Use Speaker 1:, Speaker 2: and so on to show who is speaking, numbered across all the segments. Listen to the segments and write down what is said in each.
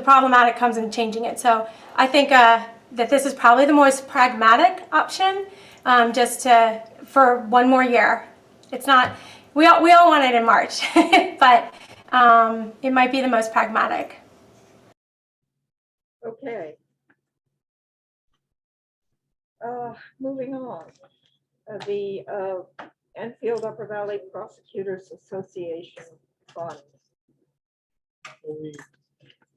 Speaker 1: the problematic comes in changing it. So I think uh, that this is probably the most pragmatic option, um, just to, for one more year. It's not, we all, we all want it in March, but um, it might be the most pragmatic.
Speaker 2: Okay. Uh, moving on, Uh, the, uh, Enfield Upper Valley Prosecutors Association Fund.
Speaker 3: We,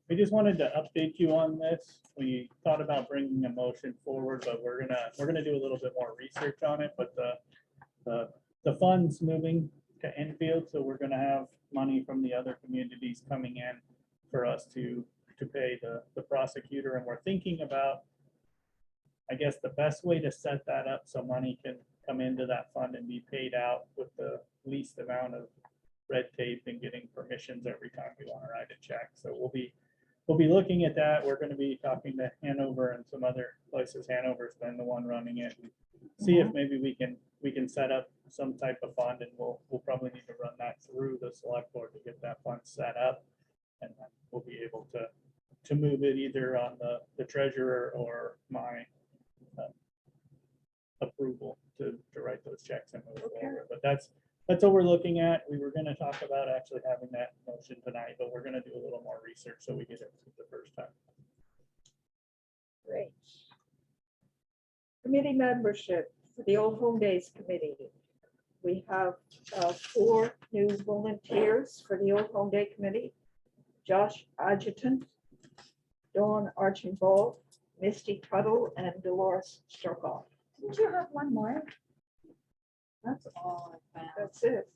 Speaker 3: we just wanted to update you on this. We thought about bringing a motion forward, but we're gonna, we're gonna do a little bit more research on it, but the, the, the funds moving to Enfield, so we're gonna have money from the other communities coming in for us to, to pay the, the prosecutor, and we're thinking about, I guess, the best way to set that up so money can come into that fund and be paid out with the least amount of red tape and getting permissions every time we want to write a check. So we'll be, we'll be looking at that. We're going to be talking to Hanover and some other places. Hanover's been the one running it. See if maybe we can, we can set up some type of fund and we'll, we'll probably need to run that through the select board to get that fund set up. And then we'll be able to, to move it either on the, the treasurer or my uh, approval to, to write those checks and move
Speaker 2: Okay.
Speaker 3: forward. But that's, that's what we're looking at. We were gonna talk about actually having that motion tonight, but we're gonna do a little more research so we get it the first time.
Speaker 2: Great. Committee membership for the Old Home Days Committee. We have uh, four new volunteers for the Old Home Day Committee. Josh Adjutant, Dawn Archibald, Misty Tuttle, and Dolores Strokoff.
Speaker 4: Didn't you have one more? That's all I found.
Speaker 2: That's it.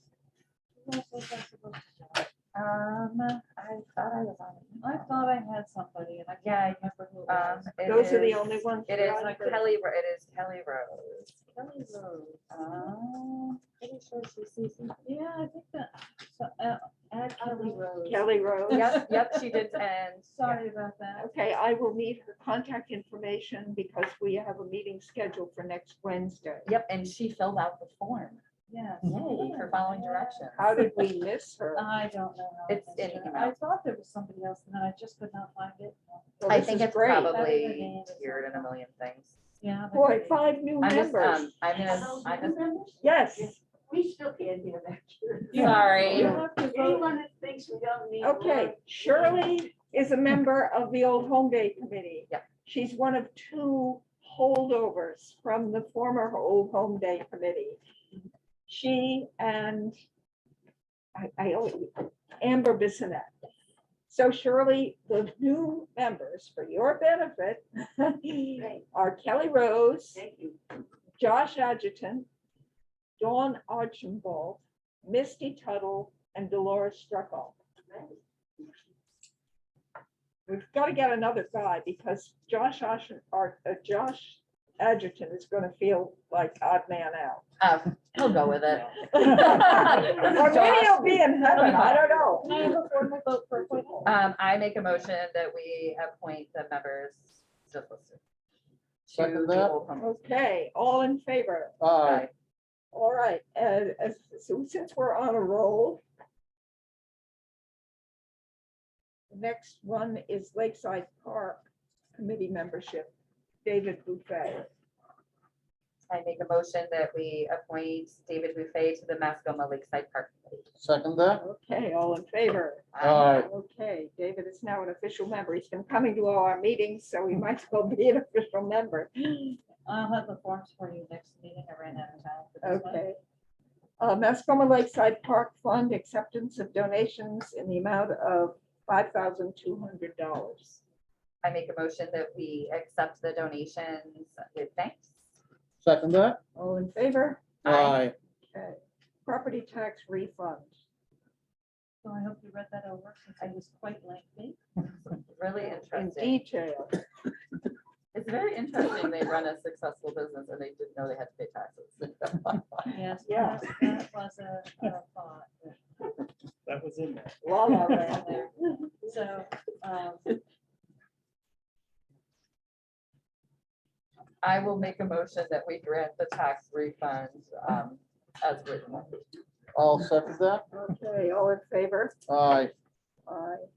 Speaker 4: What was I supposed to do? Um, I thought I was on. it. I thought I had somebody and I can't remember who. it
Speaker 2: Those are the
Speaker 4: is-
Speaker 2: only ones.
Speaker 4: It
Speaker 2: that
Speaker 4: is
Speaker 2: I
Speaker 4: like
Speaker 2: heard.
Speaker 4: Kelly, Ro- it is Kelly Rose. Kelly Rose. Um, pretty sure she sees. Yeah, I think that, so, uh, add Kelly Rose.
Speaker 2: Kelly Rose.
Speaker 4: Yep, yep, she did, and. Sorry about that.
Speaker 2: Okay, I will need her contact information because we have a meeting scheduled for next Wednesday.
Speaker 5: Yep, and she filled out the form.
Speaker 4: Yeah.
Speaker 5: Yay, her following directions.
Speaker 2: How did we miss her?
Speaker 4: I don't know. how
Speaker 5: It's
Speaker 4: missed
Speaker 5: in
Speaker 4: her.
Speaker 5: email.
Speaker 4: I thought there was somebody else and then I just could not find it.
Speaker 2: Well,
Speaker 5: I
Speaker 2: this
Speaker 5: think
Speaker 2: is
Speaker 5: it's
Speaker 2: great.
Speaker 5: probably tiered in a million things.
Speaker 4: Yeah. but
Speaker 2: Boy,
Speaker 4: maybe-
Speaker 2: five new
Speaker 5: I'm just,
Speaker 2: members.
Speaker 5: um, I'm gonna, I'm gonna,
Speaker 2: Yes,
Speaker 6: We still can't get back here.
Speaker 4: Yeah.
Speaker 5: sorry.
Speaker 4: You have to vote.
Speaker 6: Anyone who thinks we don't need.
Speaker 2: okay. Shirley is a member of the Old Home Day Committee.
Speaker 5: Yep.
Speaker 2: She's one of two holdovers from the former Old Home Day Committee. She and I, I, always- Amber Bissonette. So Shirley, the new members for your benefit are Kelly Rose,
Speaker 6: Thank you.
Speaker 2: Josh Adjutant, Dawn Archibald, Misty Tuttle, and Dolores Struckoff. We've got to get another guy because Josh Ashen, or uh, Josh Adjutant is going to feel like odd man out.
Speaker 5: Um, he'll go with it.
Speaker 2: Or maybe he'll be in heaven, I don't
Speaker 4: Can I
Speaker 2: know.
Speaker 4: have a formal vote for appointment?
Speaker 5: Um, I make a motion that we appoint the members just listed. To
Speaker 7: Second
Speaker 5: the
Speaker 7: that.
Speaker 5: Old Home.
Speaker 2: Okay, all in favor?
Speaker 7: Aye.
Speaker 2: All right, uh, uh, so since we're on a roll. the Next one is Lakeside Park Committee membership, David Buffet.
Speaker 5: I make a motion that we appoint David Buffet to the Mascoma Lakeside Park. Committee.
Speaker 7: Second that?
Speaker 2: Okay, all in favor?
Speaker 7: Aye.
Speaker 2: Okay, David is now an official member. He's been coming to all our meetings, so he might as well be an official member.
Speaker 4: I'll have the forms for you next meeting. I ran out of time. for this one.
Speaker 2: Okay. Uh, Mascoma Lakeside Park Fund acceptance of donations in the amount of five thousand two hundred dollars.
Speaker 5: I make a motion that we accept the donations with thanks.
Speaker 7: Second that?
Speaker 2: All in favor?
Speaker 5: Aye.
Speaker 2: Okay. Property tax refund.
Speaker 4: So I hope you read that over since it was quite lengthy.
Speaker 5: Really
Speaker 2: In
Speaker 5: interesting.
Speaker 2: detail.
Speaker 5: It's very interesting. They run a successful business and they didn't know they had to pay taxes.
Speaker 4: Yes.
Speaker 2: Yeah.
Speaker 4: perhaps That was a a thought.
Speaker 3: That was in there.
Speaker 2: La la land.
Speaker 4: down there. So, um,
Speaker 5: I will make a motion that we grant the tax refund um, as written.
Speaker 7: I'll second that.
Speaker 2: Okay, all in favor?
Speaker 7: Aye.
Speaker 2: Aye.